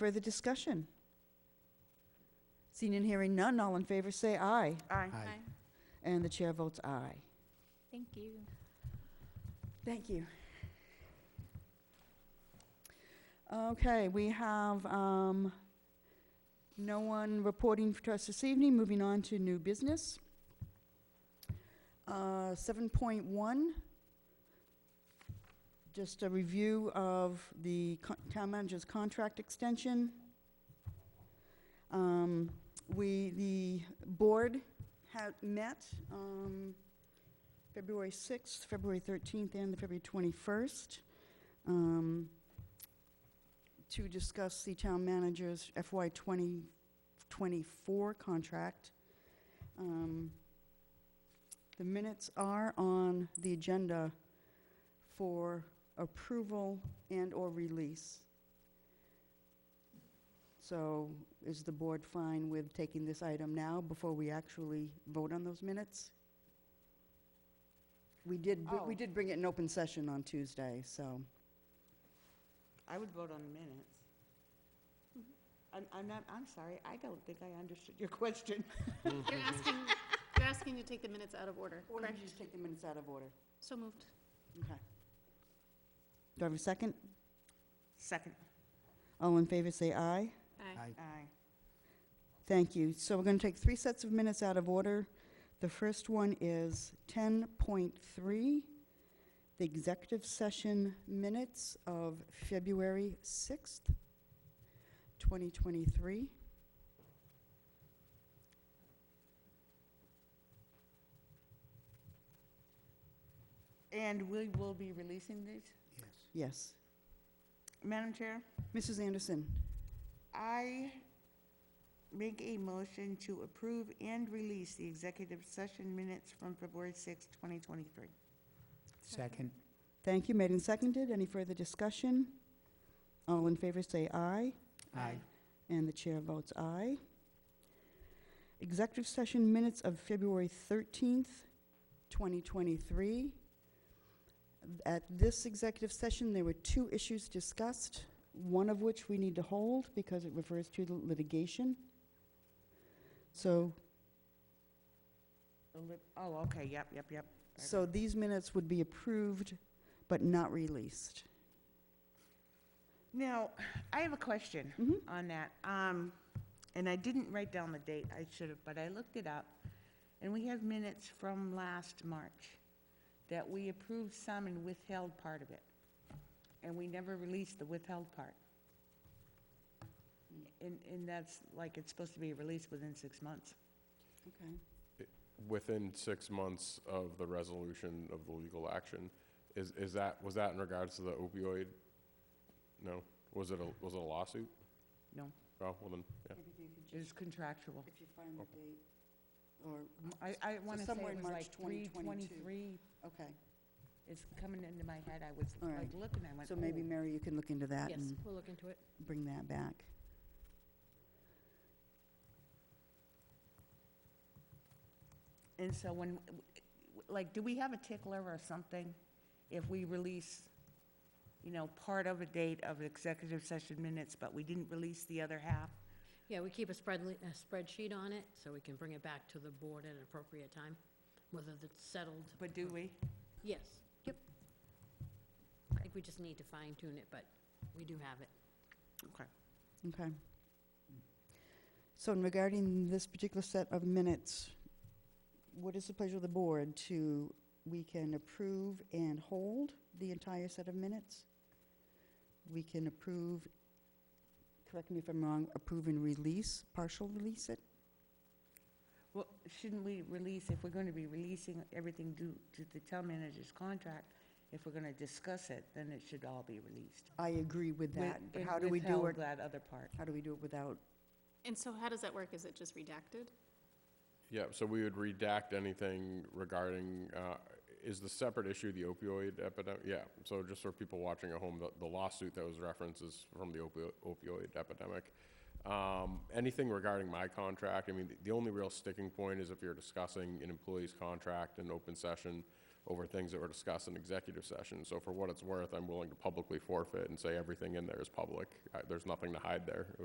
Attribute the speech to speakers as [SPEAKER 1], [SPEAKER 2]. [SPEAKER 1] Further discussion? Seeing and hearing none, all in favor say aye.
[SPEAKER 2] Aye.
[SPEAKER 3] Aye.
[SPEAKER 1] And the chair votes aye.
[SPEAKER 3] Thank you.
[SPEAKER 1] Thank you. Okay, we have um, no one reporting to us this evening. Moving on to new business. Uh, 7.1, just a review of the co- town manager's contract extension. Um, We, the board had met um, February 6th, February 13th, and the February 21st um, to discuss the town manager's FY 2024 contract. Um, The minutes are on the agenda for approval and/or release. So is the board fine with taking this item now before we actually vote on those minutes? We did, br- we
[SPEAKER 2] Oh.
[SPEAKER 1] did bring it in open session on Tuesday, so.
[SPEAKER 2] I would vote on the minutes. I'm, I'm not, I'm sorry, I don't think I understood your question.
[SPEAKER 4] You're asking, you're asking to take the minutes out of order,
[SPEAKER 1] Or
[SPEAKER 4] correct?
[SPEAKER 1] you just take the minutes out of order?
[SPEAKER 4] So moved.
[SPEAKER 1] Okay. Do I have a second?
[SPEAKER 2] Second.
[SPEAKER 1] All in favor, say aye.
[SPEAKER 4] Aye.
[SPEAKER 2] Aye.
[SPEAKER 1] Thank you. So we're going to take three sets of minutes out of order. The first one is 10.3, the executive session minutes of February 6th, 2023.
[SPEAKER 2] And we will be releasing these?
[SPEAKER 1] Yes.
[SPEAKER 2] Madam Chair,
[SPEAKER 1] Mrs. Anderson,
[SPEAKER 2] I make a motion to approve and release the executive session minutes from February sixth, twenty 2023.
[SPEAKER 3] Second.
[SPEAKER 1] thank you. Made and seconded. Any further discussion? All in favor, say aye.
[SPEAKER 3] Aye.
[SPEAKER 1] And the chair votes aye. Executive session minutes of February 13th, 2023. At this executive session, there were two issues discussed, one of which we need to hold because it refers to the litigation. So,
[SPEAKER 2] The lit- Oh, okay, yep, yep, yep.
[SPEAKER 1] so these minutes would be approved but not released.
[SPEAKER 2] Now, I have a question
[SPEAKER 1] Mhm.
[SPEAKER 2] on that. Um, And I didn't write down the date, I should have, but I looked it up. And we have minutes from last March that we approved some and withheld part of it. And we never released the withheld part. And, and that's like, it's supposed to be released within six months.
[SPEAKER 1] Okay.
[SPEAKER 5] within six months of the resolution of the legal action. Is, is that, was that in regards to the opioid? No? Was it a, was it a lawsuit?
[SPEAKER 2] No,
[SPEAKER 5] Oh, well then, yeah.
[SPEAKER 2] it is contractual.
[SPEAKER 1] If you find the date, or,
[SPEAKER 2] I, I want to say
[SPEAKER 1] somewhere in
[SPEAKER 2] it was
[SPEAKER 1] March
[SPEAKER 2] like
[SPEAKER 1] 2022.
[SPEAKER 2] 323.
[SPEAKER 1] okay.
[SPEAKER 2] It's coming into my head, I was
[SPEAKER 1] All
[SPEAKER 2] like
[SPEAKER 1] right.
[SPEAKER 2] looking, I went,
[SPEAKER 1] So maybe,
[SPEAKER 2] "Oh."
[SPEAKER 1] Mary, you can look into that and
[SPEAKER 4] we'll look into it.
[SPEAKER 1] bring that back.
[SPEAKER 2] And so when, like, do we have a tickler or something if we release, you know, part of a date of executive session minutes, but we didn't release the other half?
[SPEAKER 6] Yeah, we keep a spread, a spreadsheet on it, so we can bring it back to the board at an appropriate time, whether it's settled.
[SPEAKER 2] But do we?
[SPEAKER 6] Yes, yep. I think we just need to fine tune it, but we do have it.
[SPEAKER 2] Okay.
[SPEAKER 1] Okay. So in regarding this particular set of minutes, what is the pleasure of the board to, we can approve and hold the entire set of minutes? We can approve, correct me if I'm wrong, approve and release, partial release it?
[SPEAKER 2] Well, shouldn't we release, if we're going to be releasing everything due to the town manager's contract, if we're going to discuss it, then it should all be released.
[SPEAKER 1] I agree with
[SPEAKER 2] With-
[SPEAKER 1] that, but
[SPEAKER 2] and
[SPEAKER 1] how do we do
[SPEAKER 2] withheld
[SPEAKER 1] it?
[SPEAKER 2] That other part.
[SPEAKER 1] How do we do it without,
[SPEAKER 4] And so how does that work? Is it just redacted?
[SPEAKER 5] Yeah, so we would redact anything regarding, uh, is the separate issue the opioid epidemic? Yeah, so just for people watching at home, the- the lawsuit that was referenced is from the opio- opioid epidemic. Um, Anything regarding my contract, I mean, the- the only real sticking point is if you're discussing an employee's contract in open session, over things that were discussed in executive session. So for what it's worth, I'm willing to publicly forfeit and say everything in there is public. Uh, There's nothing to hide there.